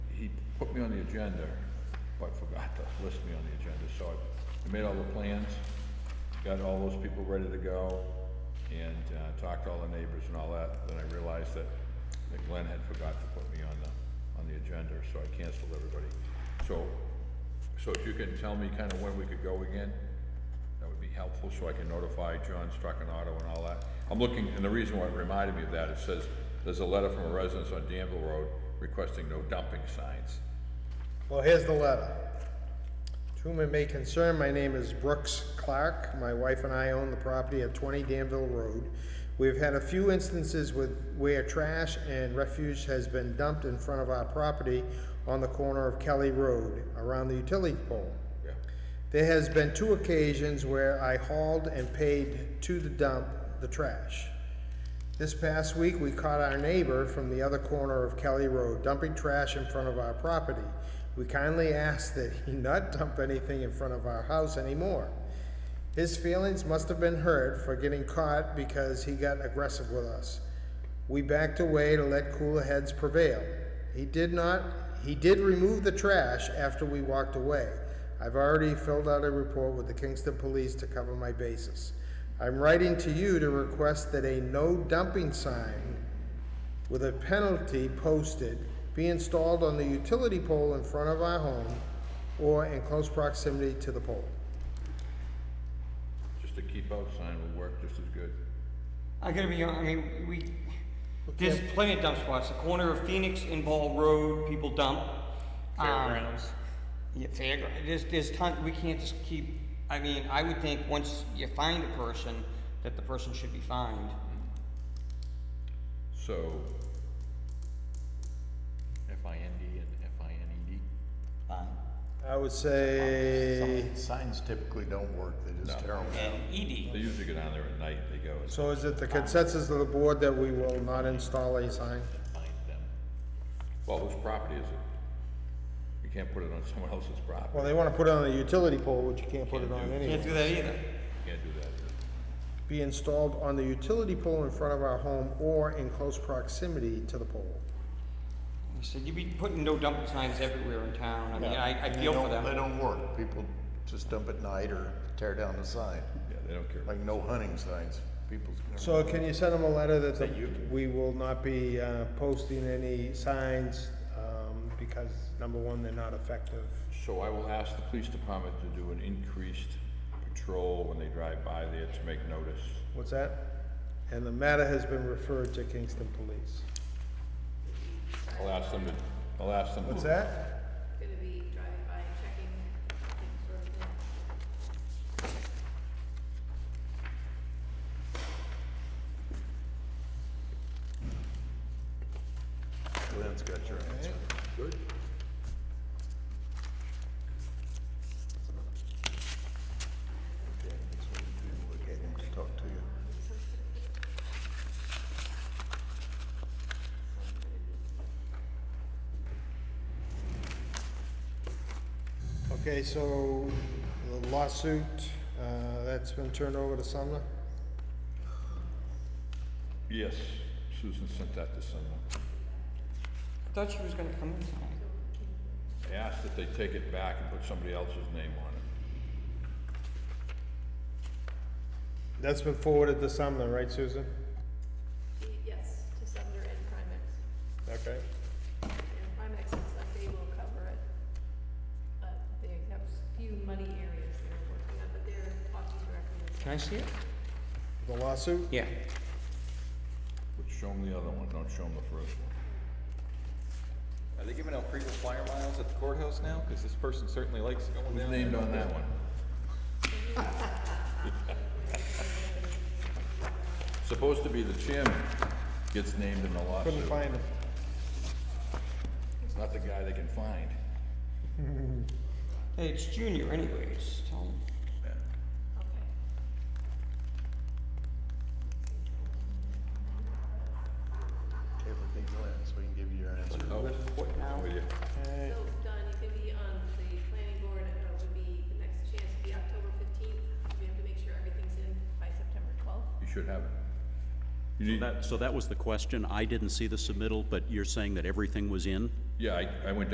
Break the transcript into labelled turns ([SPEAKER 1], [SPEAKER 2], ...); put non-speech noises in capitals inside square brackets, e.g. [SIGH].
[SPEAKER 1] put me on the agenda, but forgot to list me on the agenda, so I- I made all the plans, got all those people ready to go, and, uh, talked to all the neighbors and all that, then I realized that, that Glenn had forgot to put me on the, on the agenda, so I canceled everybody. So, so if you can tell me kinda when we could go again, that would be helpful, so I can notify John Struckinato and all that. I'm looking, and the reason why it reminded me of that, it says, there's a letter from a resident on Danville Road requesting no dumping signs.
[SPEAKER 2] Well, here's the letter. To whom it may concern, my name is Brooks Clark. My wife and I own the property at 20 Danville Road. We've had a few instances with where trash and refuse has been dumped in front of our property on the corner of Kelly Road around the utility pole.
[SPEAKER 1] Yeah,
[SPEAKER 2] There has been two occasions where I hauled and paid to the dump the trash. This past week, we caught our neighbor from the other corner of Kelly Road dumping trash in front of our property. We kindly asked that he not dump anything in front of our house anymore. His feelings must have been hurt for getting caught because he got aggressive with us. We backed away to let cooler heads prevail. He did not, he did remove the trash after we walked away. I've already filled out a report with the Kingston Police to cover my bases. I'm writing to you to request that a no dumping sign with a penalty posted be installed on the utility pole in front of our home or in close proximity to the pole.
[SPEAKER 1] just a keep out sign would work just as good.
[SPEAKER 3] I gotta be honest, I mean, we, there's plenty of dump spots, the corner of Phoenix and Ball Road, people dump. Um,
[SPEAKER 4] Fairgrounds.
[SPEAKER 3] Yeah, fairground, there's, there's ton, we can't just keep, I mean, I would think once you find a person, that the person should be fined.
[SPEAKER 1] So,
[SPEAKER 4] F I N D and F I N E D.
[SPEAKER 2] I would say,
[SPEAKER 5] Some Signs typically don't work, they're just terrible.
[SPEAKER 3] And
[SPEAKER 1] they
[SPEAKER 3] ED,
[SPEAKER 1] usually go down there at night, they go, and-
[SPEAKER 2] so is it the consensus of the board that we will not install a sign?
[SPEAKER 4] Find them.
[SPEAKER 1] well, whose property is it? You can't put it on someone else's
[SPEAKER 2] Well,
[SPEAKER 1] property,
[SPEAKER 2] they wanna put it on a utility pole, which you can't put it on
[SPEAKER 3] can't
[SPEAKER 2] anyway.
[SPEAKER 3] do that either.
[SPEAKER 1] you can't do that.
[SPEAKER 2] Be installed on the utility pole in front of our home or in close proximity to the pole.
[SPEAKER 3] I said, you'd be putting no dumping signs everywhere in town, I mean,
[SPEAKER 5] Yeah.
[SPEAKER 3] I, I
[SPEAKER 5] And they
[SPEAKER 3] feel for
[SPEAKER 5] don't- They
[SPEAKER 3] them.
[SPEAKER 5] don't work, people just dump at night or tear down the sign,
[SPEAKER 1] Yeah, they don't care.
[SPEAKER 5] like no hunting signs, people's.
[SPEAKER 2] So can you send them a letter that the- we will not be uh, posting any signs, um, because number one, they're not effective.
[SPEAKER 1] So I will ask the police department to do an increased patrol when they drive by there to make notice.
[SPEAKER 2] What's that? And the matter has been referred to Kingston Police.
[SPEAKER 1] I'll ask them to, I'll ask them to.
[SPEAKER 2] What's that?
[SPEAKER 6] gonna be driving by and checking things sort of thing.
[SPEAKER 5] Glenn's got your answer.
[SPEAKER 1] Good.
[SPEAKER 5] Okay, so we can look at him to Talk to you.
[SPEAKER 2] Okay, so the lawsuit, uh, that's been turned over to Sumner?
[SPEAKER 1] Yes, Susan sent that to someone.
[SPEAKER 3] I thought she was gonna come in tonight.
[SPEAKER 1] I asked that they take it back and put somebody else's name on it.
[SPEAKER 2] That's been forwarded to Sumner, right, Susan?
[SPEAKER 6] Yes, to Sumner and Primex.
[SPEAKER 2] Okay.
[SPEAKER 6] And Primex looks like they will cover it. But they have s- few money areas they're working on, but they're talking directly with
[SPEAKER 3] Can I see it?
[SPEAKER 2] The lawsuit?
[SPEAKER 3] Yeah.
[SPEAKER 1] But show them the other one, don't show them the first one.
[SPEAKER 4] Are they giving out free flyer miles at the courthouse now? Because this person certainly likes going
[SPEAKER 1] Who's
[SPEAKER 4] down.
[SPEAKER 1] named on that
[SPEAKER 4] [LAUGHS]
[SPEAKER 1] one? Supposed to be the chairman gets named in the
[SPEAKER 2] Couldn't
[SPEAKER 1] lawsuit.
[SPEAKER 2] find him.
[SPEAKER 1] It's not the guy they can find.
[SPEAKER 3] Hey, it's Junior anyways, tell him.
[SPEAKER 6] Okay.
[SPEAKER 5] Okay, but they Glenn, so we can give you your answer.
[SPEAKER 1] Oh, what now? With you.
[SPEAKER 6] So Don, you can be on the planning board, and it would be, the next chance would be October fifteenth. We have to make sure everything's in by September twelfth.
[SPEAKER 1] You should have it. You need,
[SPEAKER 7] That, so that was the question. I didn't see the submittal, but you're saying that everything was in?
[SPEAKER 1] yeah, I, I went down